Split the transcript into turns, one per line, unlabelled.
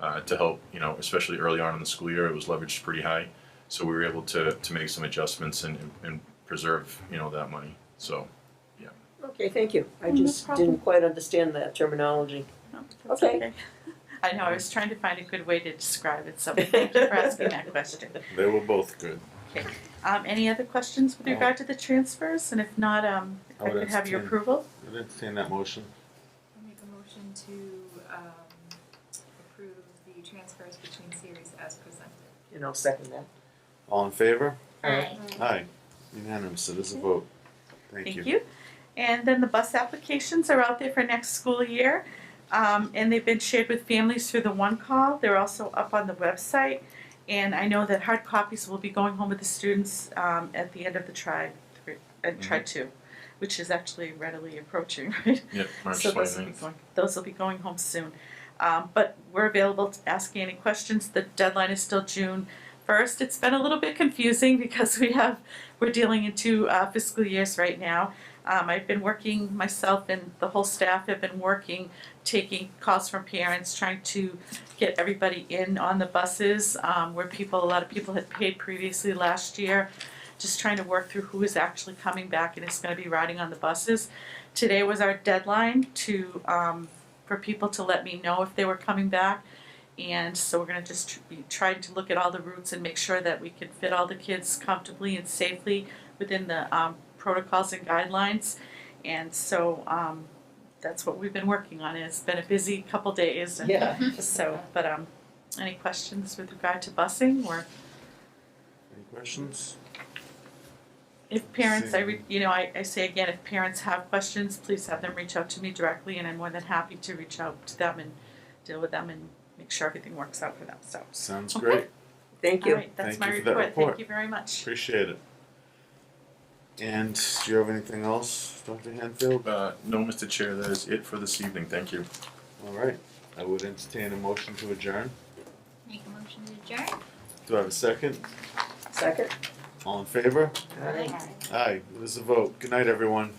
uh, to help, you know, especially early on in the school year, it was leveraged pretty high. So we were able to, to make some adjustments and, and preserve, you know, that money. So,
Okay, thank you. I
Oh, No
just
problem.
didn't quite understand that terminology.
No, that's
Okay.
I know, I was trying to find a good way to describe it, so thank you for asking that question.
They were both good.
Um, any other questions with
No. Oh,
regard to the transfers? And if not, um, if
I
I
would
could have your
entertain-
approval?
I didn't see that motion.
I'll make a motion to um, approve the transfers between series as presented.
And I'll second that.
All in favor?
Aye.
Aye. Unanimous, it is a vote. Thank you.
And then the bus applications are out there for next school year. Um, and they've been shared with families through the one call. They're also up on the website. And I know that hard copies will be going home with the students um, at the end of the tri three, uh, tri two,
Mm-hmm.
which is actually readily approaching, right?
yeah, March
So those will be
29th.
going, those will be going home soon. Um, but we're available to ask you any questions. The deadline is still June first. It's been a little bit confusing because we have, we're dealing in two uh, fiscal years right now. Um, I've been working, myself and the whole staff have been working, taking calls from parents, trying to get everybody in on the buses, um, where people, a lot of people had paid previously last year. Just trying to work through who is actually coming back and is gonna be riding on the buses. Today was our deadline to, um, for people to let me know if they were coming back. And so we're gonna just tr- be trying to look at all the routes and make sure that we can fit all the kids comfortably and safely within the, um, protocols and guidelines. And so, um, that's what we've been working on. It's been a busy couple days and
Yeah.
so, but um, any questions with regard to busing or
Any questions?
if parents, I re- you know, I, I say again, if parents have questions, please have them reach out to me directly and I'm more than happy to reach out to them and deal with them and make sure everything works out for them, so.
Sounds
Okay.
great.
Thank you.
All right, that's
Thank
my
you for that
report.
report.
Thank you very much.
Appreciate it. And do you have anything else, Dr. Hanfield?
Uh, no, Mr. Chair, that is it for this evening. Thank you.
All right. I would entertain a motion to adjourn.
Make a motion to adjourn?
Do I have a second?
Second?
All in favor?
All right.
Aye, it is a vote. Good night, everyone.